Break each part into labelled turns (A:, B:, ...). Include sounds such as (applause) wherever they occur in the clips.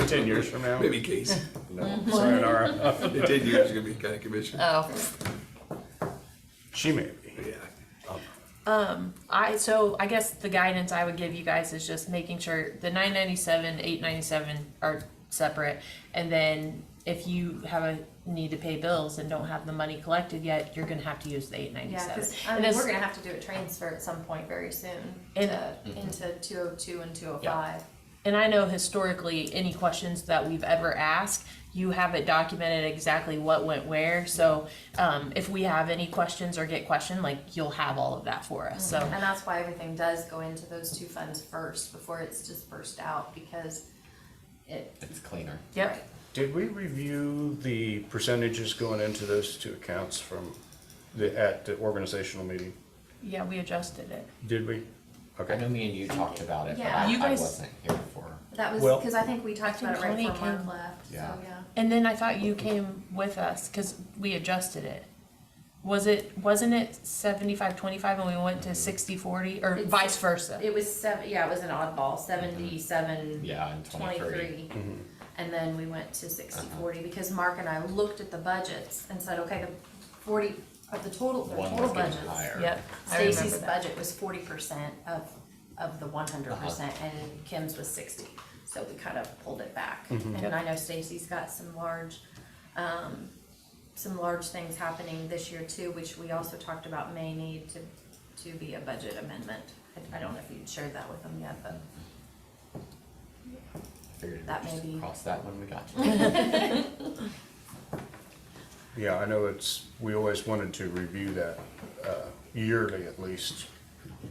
A: ten years from now.
B: Maybe Casey.
A: No, (laughs) sayonara.
B: In ten years, you're gonna be county commissioner.
C: Oh,
A: She may be.
B: Yeah.
C: I, so I guess the guidance I would give you guys is just making sure the nine ninety-seven, eight ninety-seven are separate. And then if you have a need to pay bills and don't have the money collected yet, you're gonna have to use the eight
D: Yeah,
C: ninety-seven.
D: because I mean, we're gonna have to do a transfer at some point very soon
C: And-
D: to,
E: Mm-hmm.
D: into two oh two and two oh five.
C: And I know historically, any questions that we've ever asked, you have it documented exactly what went where. So um, if we have any questions or get questioned, like you'll have all of that for us. So
D: And that's why everything does go into those two funds first before it's dispersed out because it,
E: It's cleaner.
C: yep,
A: Did we review the percentages going into those two accounts from the, at the organizational meeting?
C: yeah, we adjusted it.
A: Did we?
E: I know
A: Okay.
E: me and you talked about it, but
D: Yeah.
E: I,
C: You
E: I
C: guys-
E: wasn't here for.
D: that was,
A: Well-
D: because I think we talked about it right
C: Connie
D: before Mark
C: came-
D: left, so
E: Yeah.
D: yeah.
C: And then I thought you came with us because we adjusted it. Was it wasn't it 75 25 and we went to 60 40 or
D: It's-
C: vice versa?
D: It was seven, yeah, it was an oddball, seventy-seven.
E: Mm-hmm. Yeah, and 23.
D: And then we went to sixty,
E: Uh-huh.
D: forty, because Mark and I looked at the budgets and said, okay, the forty, of the total, their
E: One was
D: total
E: getting
D: budgets.
E: higher.
C: yep. I remember
D: Stacy's
C: that.
D: budget was forty percent of, of the one hundred percent, and Kim's was sixty, so we kind of pulled it back. And I know Stacy's got some large, um, some large things happening this year too, which we also talked about may need to, to be a budget amendment. I- I don't know if you'd shared that with them yet, but
E: I figured we'd
D: That may
E: just
D: be-
E: cross that when we got to it.
A: Yeah, I know it's, we always wanted to review that uh, yearly at least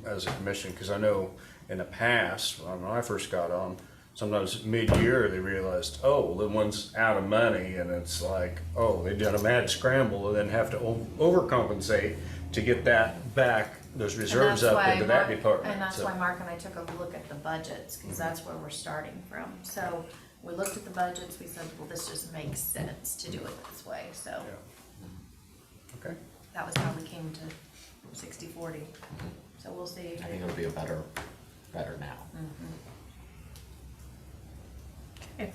A: as a commission, because I know in the past, when I first got on, sometimes mid-year, they realized, oh, the one's out of money, and it's like, oh, they did a mad scramble and then have to o- overcompensate to get that back, those
D: And
A: reserves
D: that's
A: up
D: why
A: into that
D: Mark-
A: department.
D: And that's
A: so-
D: why Mark and I took a look at the budgets, because that's where we're starting from. So we looked at the budgets, we said, well, this just makes sense to do it this way, so
A: Yeah. Okay,
D: that was how we came to sixty, forty. So we'll see.
E: I think it'll be a better, better now.
C: Okay.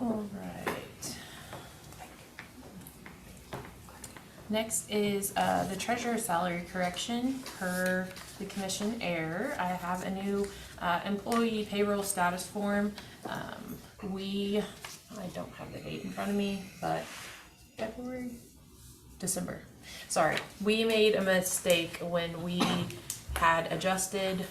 C: All right. Next is uh, the treasurer's salary correction per the commission error. I have a new uh, employee payroll status form. Um, We, I don't have the date in front of me, but February, December. Sorry, we made a mistake when we had adjusted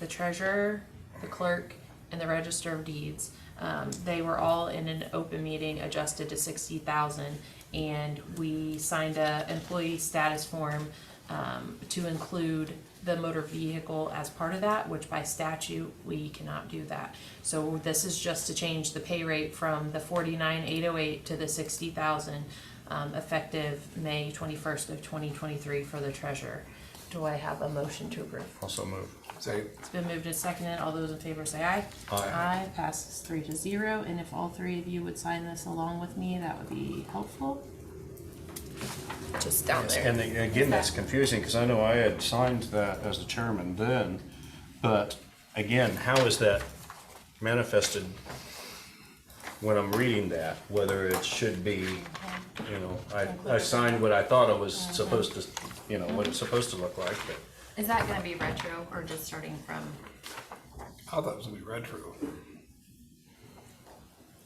C: the treasurer, the clerk, and the register of deeds. Um, they were all in an open meeting adjusted to sixty thousand, and we signed a employee status form um, to include the motor vehicle as part of that, which by statute, we cannot do that. So this is just to change the pay rate from the forty-nine eight oh eight to the sixty thousand, um, effective May twenty-first of twenty twenty-three for the treasurer. Do I have a motion to approve?
A: also move.
B: Say,
C: It's been moved and seconded. All those in favor say aye.
A: Aye.
C: passes three to zero, and if all three of you would sign this along with me, that would be helpful. Just down there.
A: And the- again, that's confusing, because I know I had signed that as the chairman then, but again, how is that manifested when I'm reading that, whether it should be, you know, I, I signed what I thought it was supposed to, you know, what it's supposed to look like, but
D: Is that gonna be retro or just starting from?
B: I thought it was gonna be retro.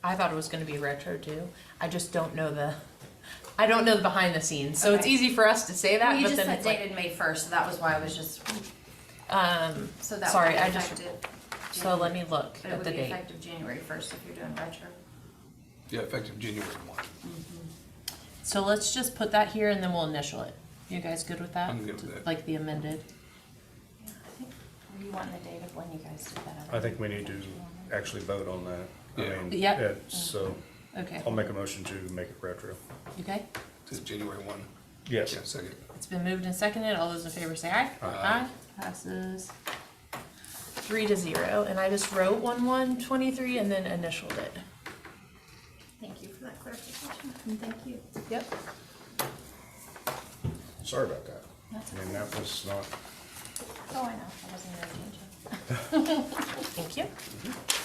C: I thought it was gonna be retro too. I just don't know the, I don't know the behind the scenes, so it's
D: Okay.
C: easy for us to say
D: Well,
C: that,
D: you
C: but
D: just
C: then
D: said
C: it's like,
D: dated May first, so that was why I was just,
C: um,
D: so that would
C: Sorry,
D: be
C: I just-
D: effective.
C: so let me look
D: But it
C: at
D: would
C: the
D: be
C: date.
D: effective January first if you're doing retro.
B: Yeah, effective January one.
C: So let's just put that here and then we'll initial it. You guys good with that?
B: I'm good with that.
C: Like the amended?
D: Yeah, I think, were you wanting the date of when you guys did that?
A: I think we need to actually vote on that. I mean,
C: Yeah. Yeah.
A: it- So,
C: Okay,
A: I'll
B: Um,
A: make a motion to make it retro.
C: okay?
B: Says January one.
A: Yes.
B: Yeah, second.
C: It's been moved and seconded. All those in favor say aye.
B: Aye.
C: Passes three to zero. And I just wrote one one twenty-three and then initialed it.
D: Thank you for that clarification, and thank you.
C: Yep.
A: Sorry about that.
D: That's
A: I mean, that was not
D: Oh, I know, I wasn't gonna change it.
C: Thank you.